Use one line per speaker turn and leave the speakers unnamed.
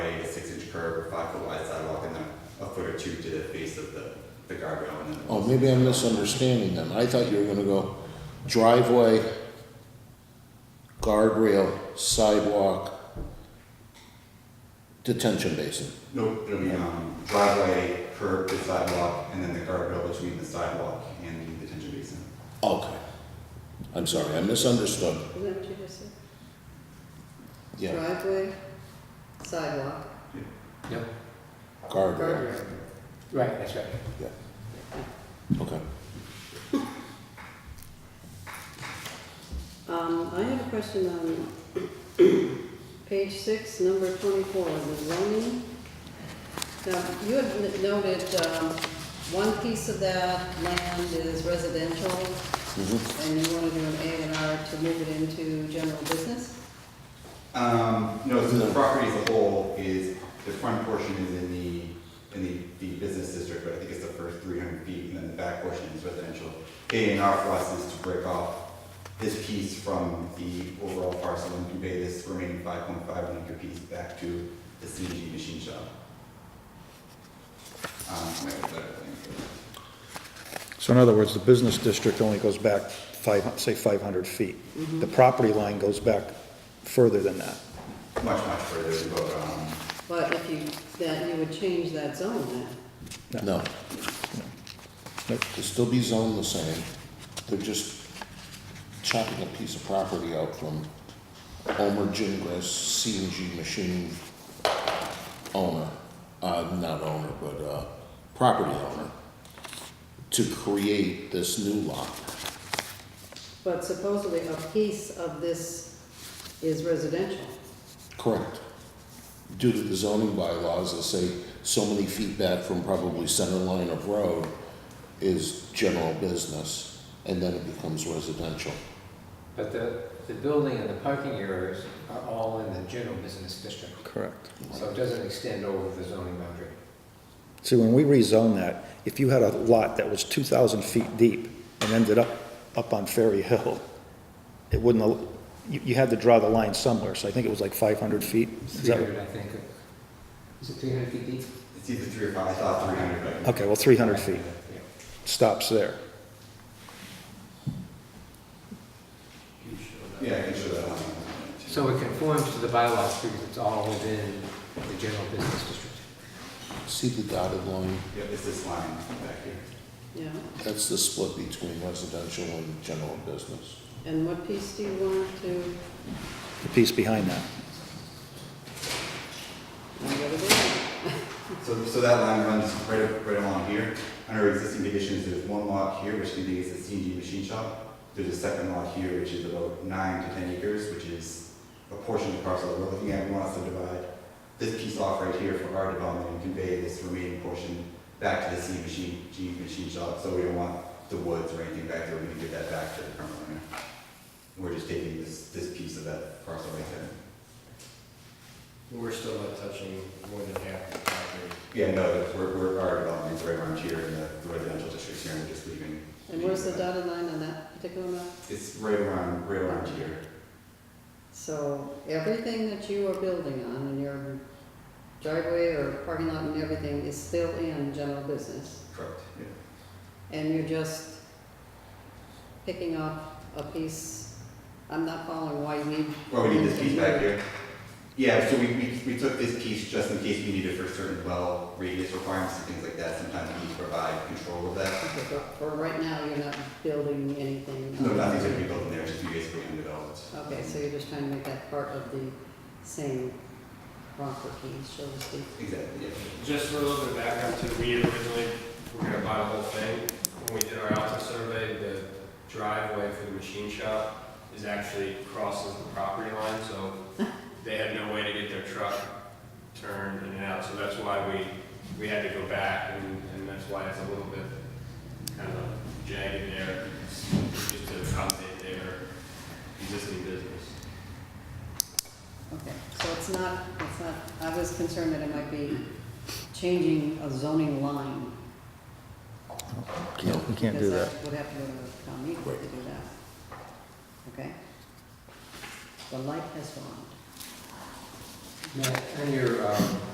block a wide sidewalk and then a foot or two to the face of the, the guardrail and then.
Oh, maybe I'm misunderstanding them. I thought you were gonna go driveway, guardrail, sidewalk, detention basin.
No, it'll be, um, driveway, curb to sidewalk, and then the guardrail between the sidewalk and the detention basin.
Okay. I'm sorry, I misunderstood.
Isn't that what you just said?
Yeah,
Driveway, sidewalk,
Yep.
guardrail,
guardrail.
Right, that's right.
okay.
Um, I have a question on page six, number twenty-four, the zoning. Now, you had n- noted, um, one piece of that land is residential,
Mhm.
and you want to do an A and R to move it into general business?
Um, no, so the
No.
property as a whole is, the front portion is in the, in the, the business district, but I think it's the first three hundred feet, and then the back portion is residential. A and R for us is to break off this piece from the overall parcel and convey this remaining five point five acre piece back to the CNG machine shop. Um, so that- that-
So in other words, the business district only goes back five, say 500 feet. The property line goes back further than that.
much, much further, but, um,
But if you, that, you would change that zone then.
No.
Nope.
It'll still be zoned the same. They're just chopping a piece of property out from Omer Gingras, C and G machine owner, uh, not owner, but, uh, property owner, to create this new lot.
But supposedly a piece of this is residential.
Correct. Due to the zoning bylaws that say so many feet back from probably center line of road is general business, and then it becomes residential.
But the, the building and the parking areas are all in the general business district,
Correct.
so it doesn't extend over the zoning boundary.
See, when we rezone that, if you had a lot that was 2,000 feet deep and ended up, up on Ferry Hill, it wouldn't, al- you, you had to draw the line somewhere, so I think it was like 500 feet. Is
Three
that-
hundred, I think. Is it three hundred feet deep?
it's either three or five, I thought three hundred, but.
Okay, well, 300 feet
Yeah.
stops there.
Yeah, I can show that on.
So it conforms to the bylaws because it's all within the general business district.
See the dotted line?
Yeah, it's this line back here.
Yeah,
That's the split between residential and general business.
and what piece do you want to,
The piece behind that.
what it is?
So, so that line runs right, up- right along here. Under existing conditions, there's one lot here, which contains a C and D machine shop. There's a second lot here, which is about nine to ten acres, which is a portion of the parcel that we're looking at. We want us to divide this piece off right here for our development and convey this remaining portion back to the C machine, G machine shop. So we don't want the woods or anything back there. We're gonna give that back to the current owner. We're just taking this, this piece of that parcel right there.
We're still not touching more than half of the property.
Yeah, no, we're, we're, our development's right around here in the residential districts here, and we're just leaving.
And where's the dotted line on that particular map?
It's right around, right around here.
So everything that you are building on in your driveway or parking lot and everything is still in general business?
Correct.
And you're just picking up a piece, I'm not following why you need.
Well, we need this piece back here. Yeah, so we, we, we took this piece just in case we needed for certain well radius requirements and things like that. Sometimes we need to provide control of that.
Okay, but For right now, you're not building anything.
No, nothing's gonna be built in there, it's just basically undeveloped.
Okay, so you're just trying to make that part of the same property, so to speak.
Exactly, yeah.
Just for a little bit of background too, we originally were gonna buy the whole thing. When we did our alpha survey, the driveway for the machine shop is actually crosses the property line, so they had no way to get their truck turned in and out, so that's why we, we had to go back, and, and that's why it's a little bit kind of jagged there, It's just to accommodate their existing business.
Okay, so it's not, it's not, I was concerned that it might be changing a zoning line.
No.
You can't do that.
Because that would have to go to the town meeting to do that. Okay? The light has gone.
Matt, on your, um,